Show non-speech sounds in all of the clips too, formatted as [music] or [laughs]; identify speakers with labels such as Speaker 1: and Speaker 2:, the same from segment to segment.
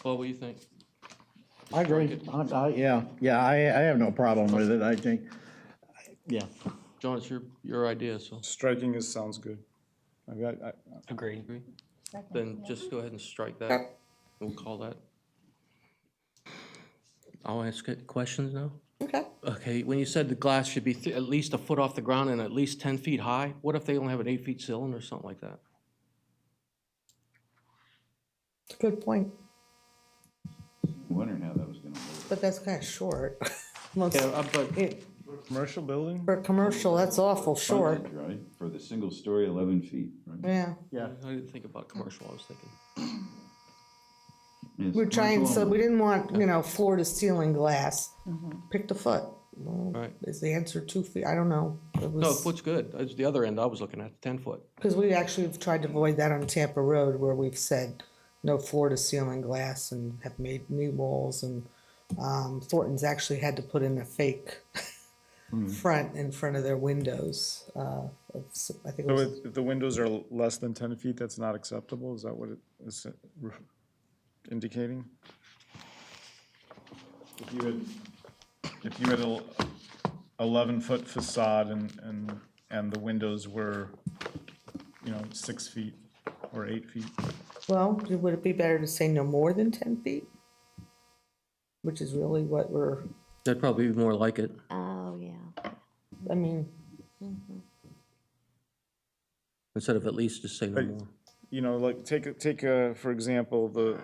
Speaker 1: Paul, what do you think?
Speaker 2: I agree. I, I, yeah, yeah, I, I have no problem with it, I think. Yeah,
Speaker 1: John, it's your, your idea, so.
Speaker 3: Striking is, sounds good. I mean, I- I-
Speaker 1: Agree. Then just go ahead and strike that. We'll call that. I'll ask it questions now.
Speaker 4: Okay.
Speaker 1: Okay, when you said the glass should be th- at least a foot off the ground and at least ten feet high, what if they only have an eight feet ceiling or something like that?
Speaker 4: It's a good point,
Speaker 5: Wondering how that was gonna work.
Speaker 4: but that's kind of short. [laughs] Most-
Speaker 1: Yeah, uh, but
Speaker 4: it-
Speaker 3: Commercial building?
Speaker 4: For a commercial, that's awful short.
Speaker 5: Frontage, Right, for the single story, eleven feet, right?
Speaker 4: Yeah,
Speaker 2: yeah.
Speaker 1: I didn't think about commercial, I was thinking.
Speaker 5: Yes,
Speaker 4: Mm-hmm. we're trying,
Speaker 5: commercial
Speaker 4: so
Speaker 5: only.
Speaker 4: we didn't want, you know, floor to ceiling glass. Pick the foot. Well,
Speaker 1: Right.
Speaker 4: Is the answer two feet? I don't know. It
Speaker 1: No,
Speaker 4: was,
Speaker 1: foot's good. That's the other end I was looking at, ten foot.
Speaker 4: because we actually have tried to avoid that on Tampa Road where we've said no floor to ceiling glass and have made new walls and, um, Thornton's actually had to put in a fake
Speaker 1: Hmm.
Speaker 4: front in front of their windows, uh, of s- I think it
Speaker 3: So
Speaker 4: was.
Speaker 3: if if the windows are less than ten feet, that's not acceptable? Is that what it is uh, indicating? If you had, if you had an eleven-foot facade and, and, and the windows were, you know, six feet or eight feet,
Speaker 4: Well, would it be better to say no more than ten feet? Which is really what we're,
Speaker 1: That'd probably be more like it.
Speaker 6: Oh, yeah.
Speaker 4: I mean,
Speaker 1: Instead of at least, just say no
Speaker 3: But-
Speaker 1: more.
Speaker 3: you know, like, take, a- take, a- for example, the,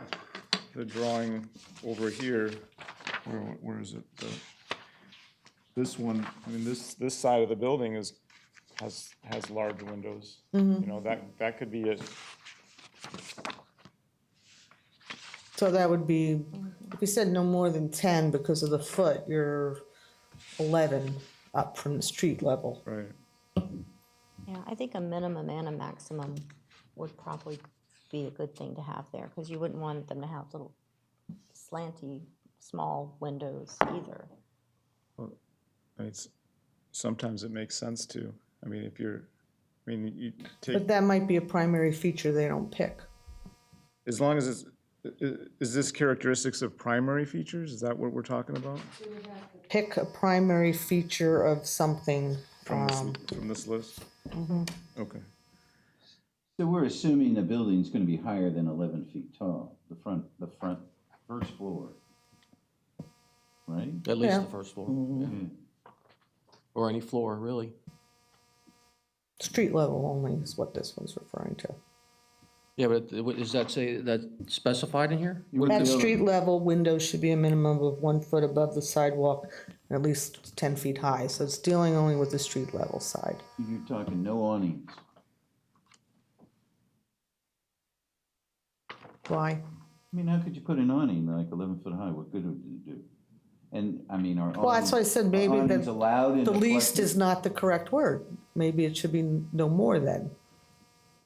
Speaker 3: the drawing over here, where, where is it? The- This one, I mean, this, this side of the building is, has, has large windows.
Speaker 4: Mm-hmm.
Speaker 3: You know, that, that could be it.
Speaker 4: so that would be, if you said no more than ten because of the foot, you're eleven up from the street level.
Speaker 3: Right.
Speaker 6: Yeah, I think a minimum and a maximum would probably be a good thing to have there, because you wouldn't want them to have little slanty, small windows either.
Speaker 3: And it's, sometimes it makes sense to, I mean, if you're, I mean, you take,
Speaker 4: But that might be a primary feature they don't pick.
Speaker 3: as long as it's, i- i- is this characteristics of primary features? Is that what we're talking about
Speaker 4: Pick a primary feature of something,
Speaker 3: from this,
Speaker 4: um, mm-hmm.
Speaker 3: from this list? Okay.
Speaker 5: So we're assuming the building's gonna be higher than eleven feet tall, the front, the front, first floor. Right?
Speaker 1: At least
Speaker 4: Yeah.
Speaker 1: the first floor, yeah. Or any floor, really.
Speaker 4: street level only is what this one's referring to.
Speaker 1: Yeah, but it- what- does that say, that specified in here?
Speaker 5: You wouldn't
Speaker 4: At
Speaker 5: be able to-
Speaker 4: street level, windows should be a minimum of one foot above the sidewalk and at least ten feet high, so it's dealing only with the street level side.
Speaker 5: You're talking no awnings.
Speaker 4: Why?
Speaker 5: I mean, how could you put an awning like eleven foot high? What good would it do? And, I mean, are awnings.
Speaker 4: Well, that's why I said maybe
Speaker 5: are awnings
Speaker 4: that
Speaker 5: allowed in
Speaker 4: the least
Speaker 5: flexi-
Speaker 4: is not the correct word. Maybe it should be no more than.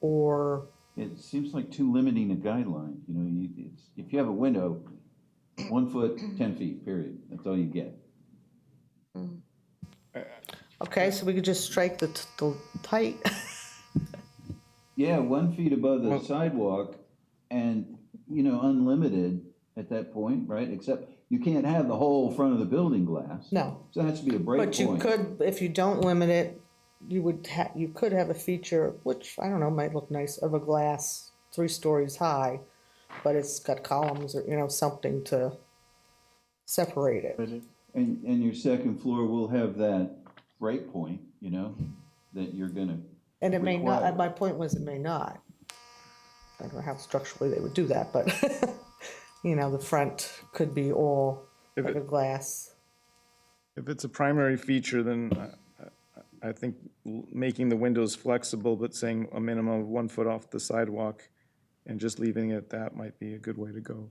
Speaker 4: Or,
Speaker 5: It seems like too limiting a guideline, you know, you, it's, if you have a window, one foot, ten feet, period, that's all you get.
Speaker 4: okay, so we could just strike the, t- the tight. [laughs]
Speaker 5: Yeah, one feet above the sidewalk and, you know, unlimited at that point, right? Except you can't have the whole front of the building glass.
Speaker 4: No,
Speaker 5: So that has to be a break
Speaker 4: but you
Speaker 5: point.
Speaker 4: could, if you don't limit it, you would ha, you could have a feature, which, I don't know, might look nice, of a glass three stories high, but it's got columns or, you know, something to separate it.
Speaker 5: And, and your second floor will have that break point, you know, that you're gonna,
Speaker 4: And it may not,
Speaker 5: required.
Speaker 4: my point was it may not. I don't know how structurally they would do that, but, [laughs] you know, the front could be all
Speaker 3: If
Speaker 4: like
Speaker 3: it-
Speaker 4: a glass.
Speaker 3: If it's a primary feature, then I- I, I think l- making the windows flexible, but saying a minimum of one foot off the sidewalk and just leaving it at that might be a good way to go.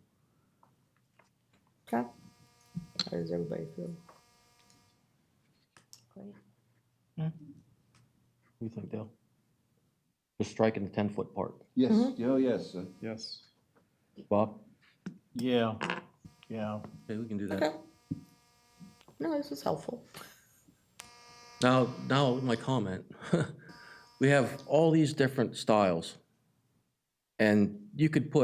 Speaker 4: Okay? How does everybody feel?
Speaker 1: What do you think, Dale? Just striking the ten-foot part.
Speaker 5: yes, oh, yes, uh,
Speaker 3: Yes.
Speaker 1: Bob?
Speaker 2: Yeah, yeah.
Speaker 1: Okay, we can do
Speaker 4: Okay.
Speaker 1: that.
Speaker 4: No, this is helpful.
Speaker 1: Now, now my comment. [laughs] We have all these different styles. And you could put